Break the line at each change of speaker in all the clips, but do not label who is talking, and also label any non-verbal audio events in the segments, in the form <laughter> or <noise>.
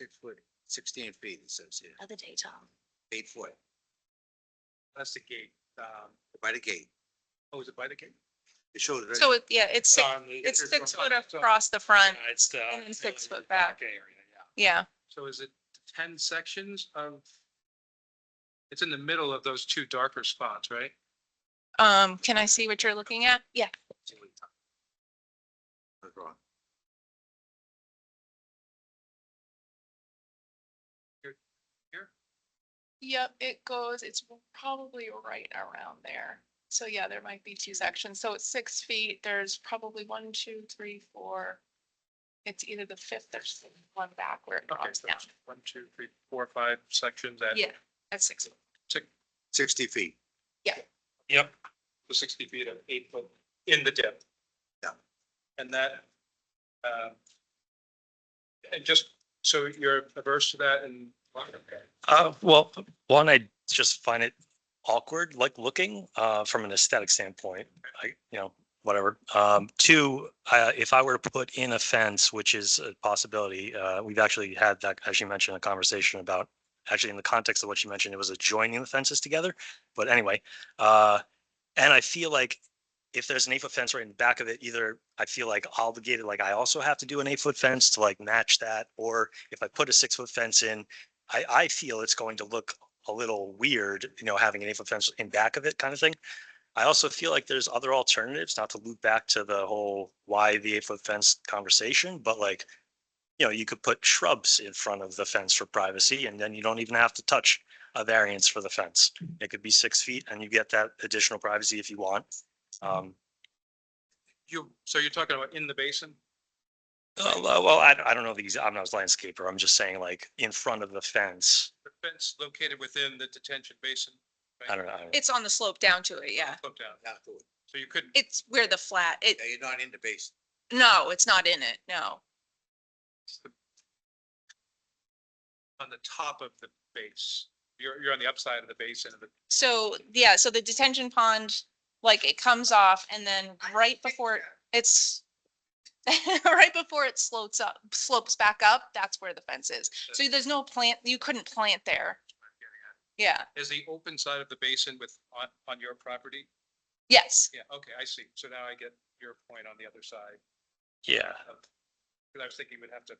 six foot, sixteen feet, it says here,
Other day, Tom.
eight foot
That's the gate. Um,
by the gate.
oh, is it by the gate?
It shows. it.
So, it- yeah, it's, six-
on the-
it's six
on-
foot
so-
across the front,
Yeah, It's the.
and then six
yeah,
foot
the
back.
Area, yeah.
yeah.
So is it ten sections of? It's in the middle of those two darker spots, right?
Um, can I see what you're looking at? Yeah.
That's wrong.
Yep, it goes, it's probably right around there. So yeah, there might be two sections. So it's six feet. There's probably one, two, three, four. It's either the fifth or one back where it
Okay,
drops
so
down.
it's one, two, three, four, five sections at.
Yeah, at six. foot.
Sixty feet.
Yep. So sixty feet of eight foot in the dip.
Yeah.
And that, um, and just, so you're averse to that and.
Uh, well, one, I just find it awkward, like looking, uh, from an aesthetic standpoint, I, you know, whatever. Um, two, uh, if I were to put in a fence, which is a possibility, uh, we've actually had that, as you mentioned, a conversation about, actually in the context of what you mentioned, it was adjoining the fences together, but anyway, uh, and I feel like if there's an eight foot fence right in the back of it, either I feel like obligated, like I also have to do an eight foot fence to like match that, or if I put a six foot fence in, I, I feel it's going to look a little weird, you know, having an eight foot fence in back of it kind of thing. I also feel like there's other alternatives, not to loop back to the whole why the eight foot fence conversation, but like, you know, you could put shrubs in front of the fence for privacy and then you don't even have to touch a variance for the fence. It could be six feet and you get that additional privacy if you want. Um,
You, so you're talking about in the basin?
uh, well, I, I don't know these, I'm not a landscaper. I'm just saying like in front of the fence.
the fence located within the detention basin.
I don't know. I don't know.
It's on the slope down to it, yeah.
Slope down,
Not to it.
so you couldn't,
It's where the flat, it,
Yeah, You're not in the base.
no, it's not in it, no.
on the top of the base, you're, you're on the upside of the basin of the,
So, yeah, so the detention pond, like it comes off and then right before it's <laughs> right before it slopes up, slopes back up, that's where the fence is. So there's no plant, you couldn't plant there. Yeah,
is the open side of the basin with, on, on your property?
yes,
Yeah, okay, I see. So now I get your point on the other side.
Yeah.
Because I was thinking we'd have to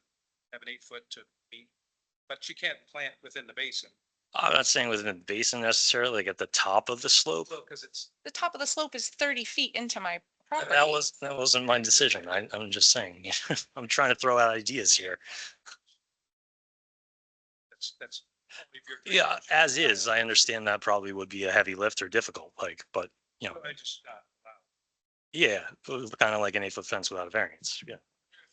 have an eight foot to meet, but you can't plant within the basin.
I'm not saying within the basin necessarily, like at the top of the slope.
Well, because it's,
the top of the slope is thirty feet into my property.
That was, that wasn't my decision. I, I'm just saying, <laughs> I'm trying to throw out ideas here.
that's, that's. if you're-
Yeah, as is, I understand that probably would be a heavy lift or difficult, like, but you know,
I just, uh, uh,
yeah, kind of like an eight foot fence without a variance. Yeah.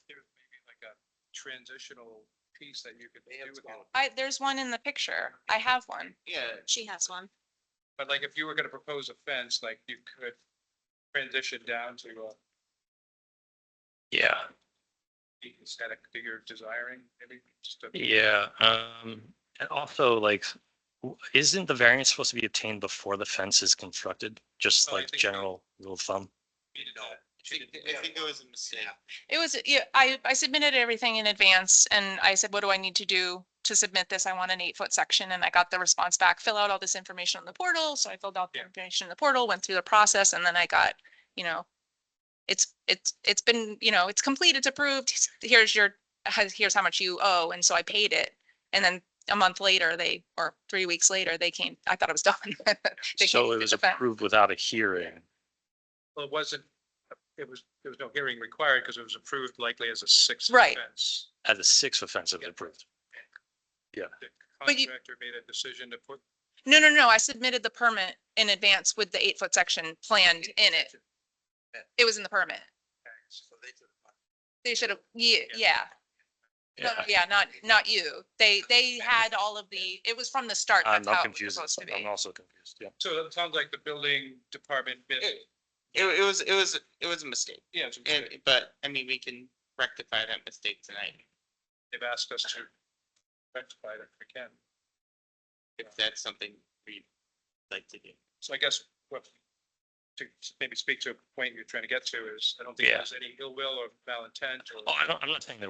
there's maybe like a transitional piece that you could
They
do
have
with it.
small-
I, there's one in the picture. I have one.
Yeah,
She has one.
but like if you were gonna propose a fence, like you could transition down to a
Yeah.
aesthetic that you're desiring, maybe just a.
Yeah. Um, and also like, w- isn't the variance supposed to be obtained before the fence is constructed? Just
Oh, I
like
think so.
general rule of thumb?
I think it was a mistake.
It was, yeah, I, I submitted everything in advance and I said, what do I need to do to submit this? I want an eight foot section and I got the response back, fill out all this information on the portal. So I filled out the
Yeah.
information in the portal, went through the process and then I got, you know, it's, it's, it's been, you know, it's complete, it's approved. Here's your, here's how much you owe. And so I paid it. And then a month later, they, or three weeks later, they came, I thought it was <laughs> done. They
So
came
it
to
was
the fence.
approved without a hearing.
Well, it wasn't, it was, there was no hearing required because it was approved likely as a six.
Right.
fence.
As a six foot fence, it was
Yeah.
approved.
The
But you-
contractor made a decision to put.
No, no, no, I submitted the permit in advance with the eight foot section planned in it. It was in the permit.
So they took-
They should have, yeah, yeah,
Yeah.
No, no, yeah, not, not you. They, they had all of the, it was from the start.
I'm
That's how
not
it was
confused.
supposed to
I'm
be.
also confused. Yeah.
So it sounds like the building department, bit-
It, it was, it was, it was a mistake.
yeah, it's-
And,
they've
but, I mean, we can rectify that mistake tonight
asked us to rectify it if we can.
if that's something we'd like to do.
So I guess what, to maybe speak to a point you're trying to get to is, I don't think
Yeah.
there's any ill will or malintent or.
Oh, I don't, I'm not saying there